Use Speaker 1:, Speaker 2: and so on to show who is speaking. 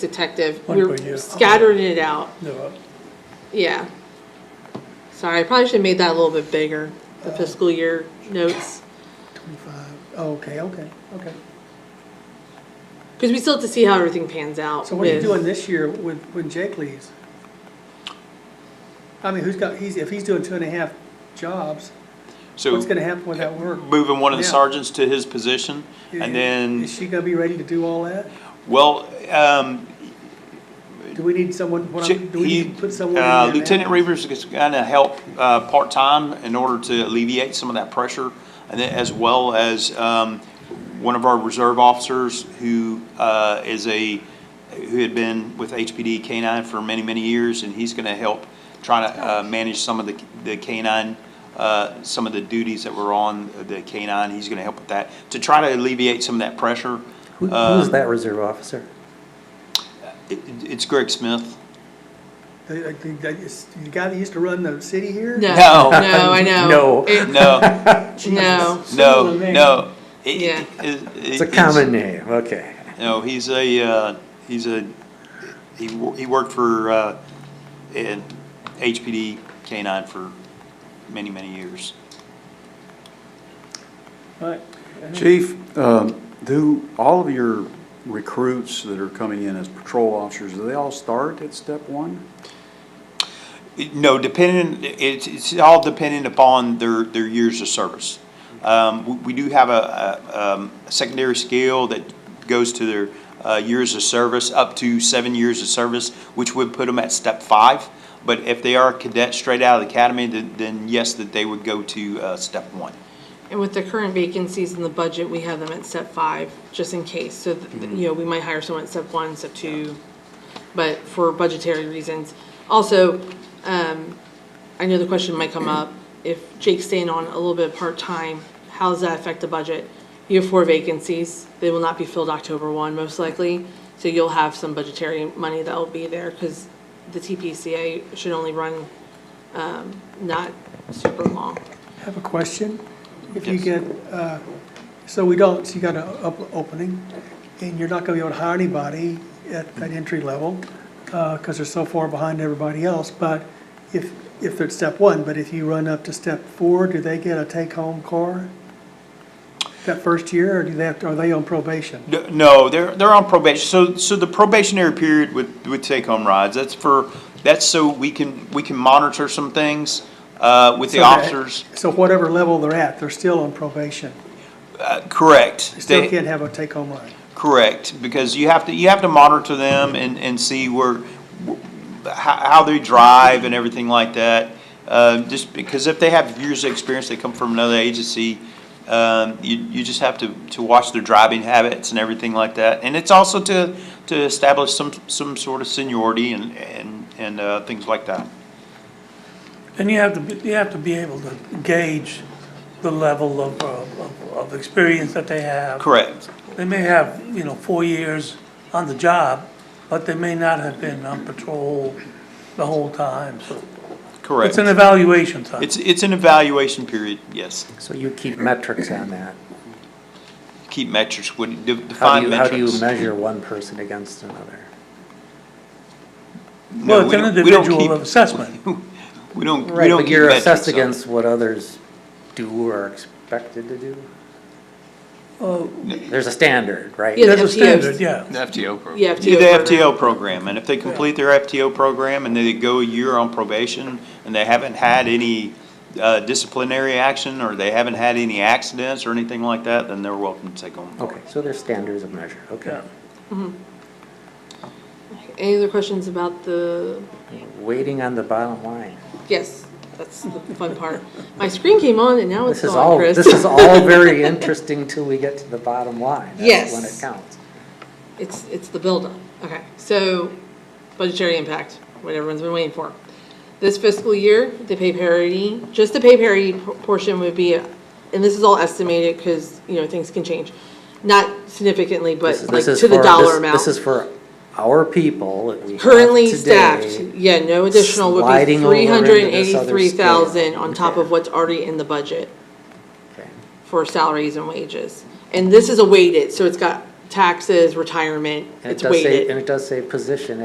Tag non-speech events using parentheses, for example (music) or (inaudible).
Speaker 1: detective.
Speaker 2: One per
Speaker 1: We're
Speaker 2: year.
Speaker 1: scattering it out,
Speaker 2: No,
Speaker 1: yeah. Sorry, I probably should have made that a little bit bigger, the fiscal year notes.
Speaker 2: twenty-five, oh, okay, okay, okay.
Speaker 1: Because we still have to see how everything pans out.
Speaker 2: So what are you
Speaker 1: with-
Speaker 2: doing this year when, when Jake leaves? I mean, who's got, he's, if he's doing two and a half jobs,
Speaker 3: So
Speaker 2: what's gonna happen with that work?
Speaker 3: moving one of the
Speaker 2: Yeah.
Speaker 3: sergeants to his position and then,
Speaker 2: Is she gonna be ready to do all that?
Speaker 3: well, um,
Speaker 2: Do we need someone, what I'm, do we
Speaker 3: he-
Speaker 2: need to put someone in
Speaker 3: uh,
Speaker 2: there now?
Speaker 3: Lieutenant Reavers is gonna help, uh, part-time in order to alleviate some of that pressure. And then as well as, um, one of our reserve officers who, uh, is a, who had been with HPD K-9 for many, many years. And he's gonna help try to, uh, manage some of the, the K-9, uh, some of the duties that were on the K-9. He's gonna help with that, to try to alleviate some of that pressure.
Speaker 4: Who,
Speaker 3: Uh,
Speaker 4: who's that reserve officer?
Speaker 3: It, it's Greg Smith.
Speaker 2: The, uh, the- the- the guy that used to run the city here?
Speaker 1: No,
Speaker 3: No.
Speaker 1: no, I know.
Speaker 4: No.
Speaker 1: It-
Speaker 3: No.
Speaker 1: No,
Speaker 3: No,
Speaker 2: Similar name.
Speaker 3: no. It-
Speaker 1: Yeah.
Speaker 3: it- it-
Speaker 4: It's a common name, okay.
Speaker 3: No, he's a, uh, he's a, he, wo- he worked for, uh, in HPD K-9 for many, many years.
Speaker 2: Right.
Speaker 5: Chief, um, do all of your recruits that are coming in as patrol officers, do they all start at step one?
Speaker 3: It- No, depending, it's, it's all dependent upon their, their years of service. Um, we, we do have a, a, um, a secondary scale that goes to their, uh, years of service, up to seven years of service, which would put them at step five. But if they are a cadet straight out of the academy, then, then yes, that they would go to, uh, step one.
Speaker 1: And with the current vacancies in the budget, we have them at step five, just in case. So, th- you know, we might hire someone at step one, step two, but for budgetary reasons. Also, um, I know the question might come up, if Jake's staying on a little bit part-time, how does that affect the budget? You have four vacancies. They will not be filled October one, most likely. So you'll have some budgetary money that'll be there because the TPCA should only run, um, not super long.
Speaker 2: I have a question. If you
Speaker 3: Yes.
Speaker 2: get, uh, so we don't, so you got an opening, and you're not gonna be able to hire anybody at
Speaker 3: Mm-hmm.
Speaker 2: that entry level, because they're so far behind everybody else, but if, if they're at step one, but if you run up to step four, do they get a take-home car? That first year, or do they have, to- are they on probation?
Speaker 3: No- No, they're, they're on probation. So, so the probationary period with, with take-home rides, that's for, that's so we can, we can monitor some things, uh, with the
Speaker 2: So that-
Speaker 3: officers.
Speaker 2: So whatever level they're at, they're still on probation.
Speaker 3: Uh, Correct.
Speaker 2: They still
Speaker 3: They-
Speaker 2: can't have a take-home line.
Speaker 3: Correct, because you have to, you have to monitor them and, and see where, wh- how, how they drive and everything like that. Uh, just because if they have years of experience, they come from another agency, um, you, you just have to, to watch their driving habits and everything like that. And it's also to, to establish some, some sort of seniority and, and, and, uh, things like that.
Speaker 6: And you have to, be- you have to be able to gauge the level of, uh, of, of experience that they have.
Speaker 3: Correct,
Speaker 6: They may have, you know, four years on the job, but they may not have been on patrol the whole time, so.
Speaker 3: correct.
Speaker 6: It's an evaluation time.
Speaker 3: It's, it's an evaluation period, yes.
Speaker 4: So you keep metrics on that.
Speaker 3: Keep metrics, would, de-
Speaker 4: How
Speaker 3: define
Speaker 4: do you, how do you
Speaker 3: metrics.
Speaker 4: measure one person against another?
Speaker 3: No,
Speaker 6: Well, it's
Speaker 3: we
Speaker 6: an
Speaker 3: don't- we don't
Speaker 6: individual
Speaker 3: keep-
Speaker 6: assessment.
Speaker 3: We don't, we
Speaker 4: Right,
Speaker 3: don't
Speaker 4: but
Speaker 3: keep
Speaker 4: you're
Speaker 3: metrics
Speaker 4: assessed
Speaker 3: on it.
Speaker 4: against what others do or are expected to do? There's a standard, right?
Speaker 1: Yeah,
Speaker 6: There's a
Speaker 1: FTOs.
Speaker 6: standard, yeah.
Speaker 1: You have to.
Speaker 3: Yeah,
Speaker 1: go
Speaker 3: the
Speaker 1: further.
Speaker 3: FTO program, and if they complete their FTO program and they go a year on probation and they haven't had any uh, disciplinary action or they haven't had any accidents or anything like that, then they're welcome to take home.
Speaker 4: Okay, so there's standards of measure, okay.
Speaker 6: Yeah.
Speaker 1: Any other questions about the,
Speaker 4: Waiting on the bottom line.
Speaker 1: yes, that's the fun part. My screen came on and now it's
Speaker 4: This is
Speaker 1: gone,
Speaker 4: all,
Speaker 1: Oh, Chris. (laughs)
Speaker 4: this is all very interesting till we get to the bottom line. That's When it
Speaker 1: Yes.
Speaker 4: counts.
Speaker 1: It's, it's the buildup. Okay, so budgetary impact, what everyone's been waiting for. This fiscal year, the pay parity, just the pay parity p- portion would be, and this is all estimated because, you know, things can change. Not significantly, but
Speaker 4: This is-
Speaker 1: like
Speaker 4: this is
Speaker 1: to the
Speaker 4: for-
Speaker 1: dollar
Speaker 4: this-
Speaker 1: amount.
Speaker 4: This is for our people that we have
Speaker 1: Currently
Speaker 4: today.
Speaker 1: staffed, yeah, no additional would be
Speaker 4: sliding over
Speaker 1: three
Speaker 4: into
Speaker 1: hundred and
Speaker 4: this other
Speaker 1: eighty-three thousand
Speaker 4: scale.
Speaker 1: on top
Speaker 4: Okay.
Speaker 1: of what's already in the budget
Speaker 4: Okay.
Speaker 1: for salaries and wages. And this is a weighted, so it's got taxes, retirement,
Speaker 4: And it
Speaker 1: it's
Speaker 4: does say,
Speaker 1: weighted.
Speaker 4: and it does say position